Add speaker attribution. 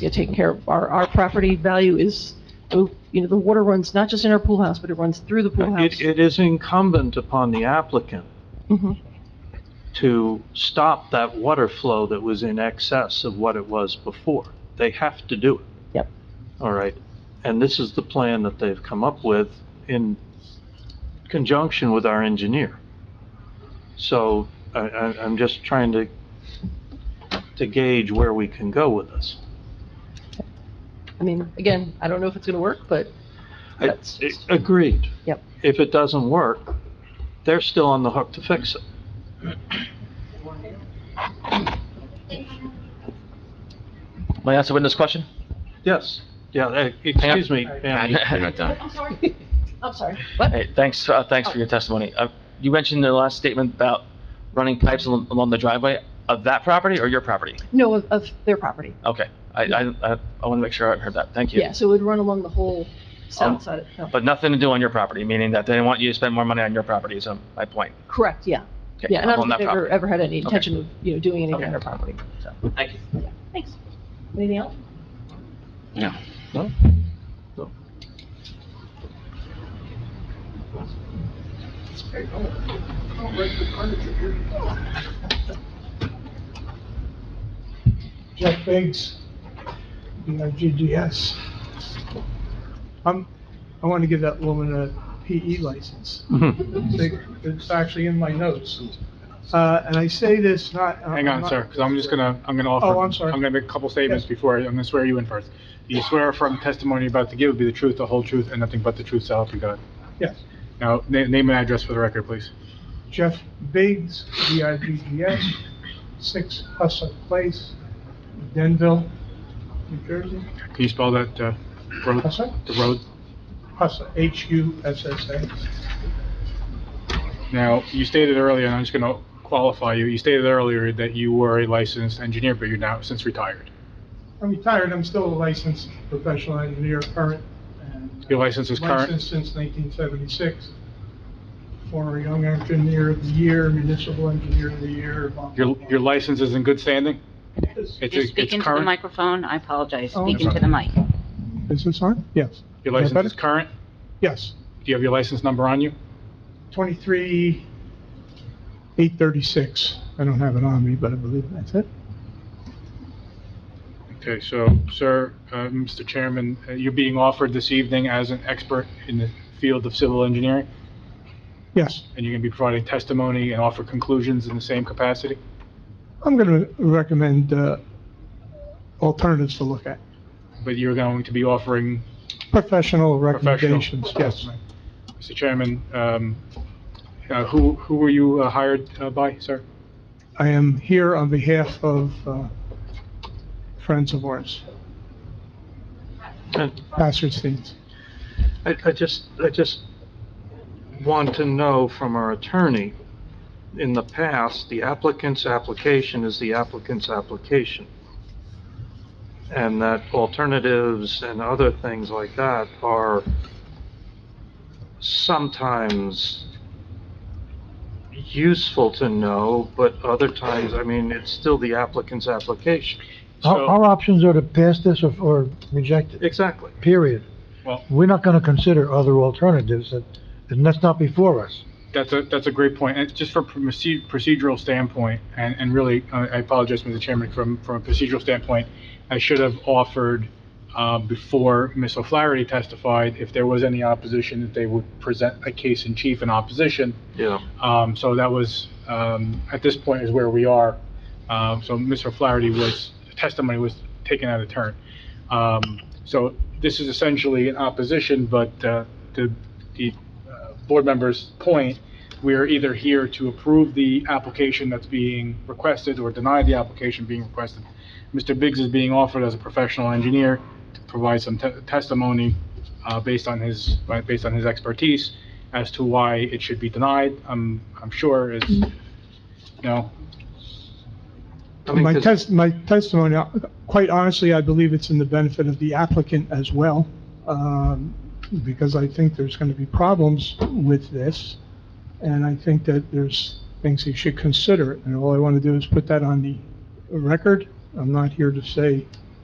Speaker 1: you know, taking care of, our, our property value is, oh, you know, the water runs not just in our pool house, but it runs through the pool house.
Speaker 2: Uh, It, it is incumbent upon the applicant
Speaker 1: Mhm.
Speaker 2: to stop that water flow that was in excess of what it was before. They have to do it.
Speaker 1: Yep.
Speaker 2: All right, and this is the plan that they've come up with in conjunction with our engineer. So I, I, I'm just trying to, to gauge where we can go with this.
Speaker 1: I mean, again, I don't know if it's gonna work, but
Speaker 2: I-
Speaker 1: That's-
Speaker 2: I- Agreed.
Speaker 1: Yep.
Speaker 2: If it doesn't work, they're still on the hook to fix it.
Speaker 3: May I ask a witness question?
Speaker 2: Yes, yeah, eh, excuse me, ma'am.
Speaker 3: You're not done.
Speaker 1: I'm sorry. I'm sorry. What?
Speaker 3: Hey, thanks, uh, thanks for your testimony. Uh, You mentioned in the last statement about running pipes al- along the driveway of that property or your property?
Speaker 1: No, of, of their property.
Speaker 3: Okay, I, I, I want to make sure I heard that, thank you.
Speaker 1: Yeah, so it would run along the whole
Speaker 3: Um,
Speaker 1: south side. of- no.
Speaker 3: But nothing to do on your property, meaning that they didn't want you to spend more money on your property, is um, my point.
Speaker 1: Correct, yeah.
Speaker 3: Okay,
Speaker 1: Yeah, and I
Speaker 3: on
Speaker 1: don't
Speaker 3: that
Speaker 1: think ever,
Speaker 3: property.
Speaker 1: ever had any
Speaker 3: Okay.
Speaker 1: intention of, you know, doing anything
Speaker 3: Okay.
Speaker 1: on their property, so.
Speaker 3: Thank you.
Speaker 1: Thanks. Anything else?
Speaker 3: No.
Speaker 2: No?
Speaker 4: Jeff Biggs, BRGGS. I'm, I want to give that woman a PE license. They- It's actually in my notes. Uh, and I say this not.
Speaker 5: Hang on, sir, because I'm just gonna, I'm gonna offer.
Speaker 4: Oh, I'm sorry.
Speaker 5: I'm gonna make a couple statements before, I'm gonna swear you in first. Do you swear affirm testimony you're about to give will be the truth, the whole truth, and nothing but the truth, so help you God?
Speaker 4: Yes.
Speaker 5: Now, na- name and address for the record, please.
Speaker 4: Jeff Biggs, BRGGS, six Hussock Place, Denville, New Jersey.
Speaker 5: Can you spell that, uh, road,
Speaker 4: Hussock?
Speaker 5: the road?
Speaker 4: Hussock, H-U-S-S-A.
Speaker 5: Now, you stated earlier, and I'm just gonna qualify you, you stated earlier that you were a licensed engineer, but you're now since retired.
Speaker 4: I'm retired, I'm still a licensed professional engineer, current. and-
Speaker 5: Your license is current?
Speaker 4: Licensed since 1976. Former Young Engineer of the Year, Municipal Engineer of the Year. blah, blah,
Speaker 5: Your,
Speaker 4: blah.
Speaker 5: your license is in good standing?
Speaker 4: Is
Speaker 5: It's
Speaker 6: You're
Speaker 5: it's
Speaker 6: speaking to the
Speaker 5: current?
Speaker 6: microphone, I apologize,
Speaker 4: Oh,
Speaker 6: speaking
Speaker 5: that's
Speaker 6: to the mic.
Speaker 4: is this on? Yes.
Speaker 5: Your
Speaker 4: Is that
Speaker 5: license is
Speaker 4: better?
Speaker 5: current?
Speaker 4: Yes,
Speaker 5: Do you have your license number on you?
Speaker 4: 23, 836. I don't have it on me, but I believe that's it.
Speaker 5: Okay, so, sir, uh, Mr. Chairman, uh, you're being offered this evening as an expert in the field of civil engineering,
Speaker 4: Yes,
Speaker 5: and you're going to be providing testimony and offer conclusions in the same capacity?
Speaker 4: I'm going to recommend uh, alternatives to look at.
Speaker 5: But you're going to be offering,
Speaker 4: Professional
Speaker 5: Professional.
Speaker 4: recommendations, yes.
Speaker 5: Mr. Chairman, um, uh, who, who were you uh, hired uh, by, sir?
Speaker 4: I am here on behalf of uh, friends of ours,
Speaker 2: And
Speaker 4: Bassersteins.
Speaker 2: I, I just, I just want to know from our attorney, in the past, the applicant's application is the applicant's application. And that alternatives and other things like that are sometimes useful to know, but other times, I mean, it's still the applicant's application.
Speaker 7: Our,
Speaker 5: So-
Speaker 7: our options are to pass this or, or reject it,
Speaker 2: Exactly.
Speaker 7: period.
Speaker 5: Well-
Speaker 7: We're not gonna consider other alternatives, and, and that's not before us.
Speaker 5: That's a, that's a great point. And just from a proce- procedural standpoint, and, and really, uh, I apologize, Mr. Chairman, from, from a procedural standpoint, I should have offered, uh, before Ms. O'Flaherty testified, if there was any opposition, that they would present a case in chief in opposition.
Speaker 2: Yeah.
Speaker 5: Um, so that was, um, at this point is where we are. Um, so Ms. O'Flaherty was, testimony was taken out of turn. Um, so this is essentially an opposition, but, uh, the, the, uh, board member's point, we are either here to approve the application that's being requested or deny the application being requested. Mr. Biggs is being offered as a professional engineer to provide some te- testimony, uh, based on his, based on his expertise as to why it should be denied, I'm, I'm sure is, you know,
Speaker 2: I mean,
Speaker 4: My
Speaker 2: 'cause-
Speaker 4: test, my testimony, uh, quite honestly, I believe it's in the benefit of the applicant as well, um, because I think there's going to be problems with this, and I think that there's things he should consider, and all I want to do is put that on the record. I'm not here to say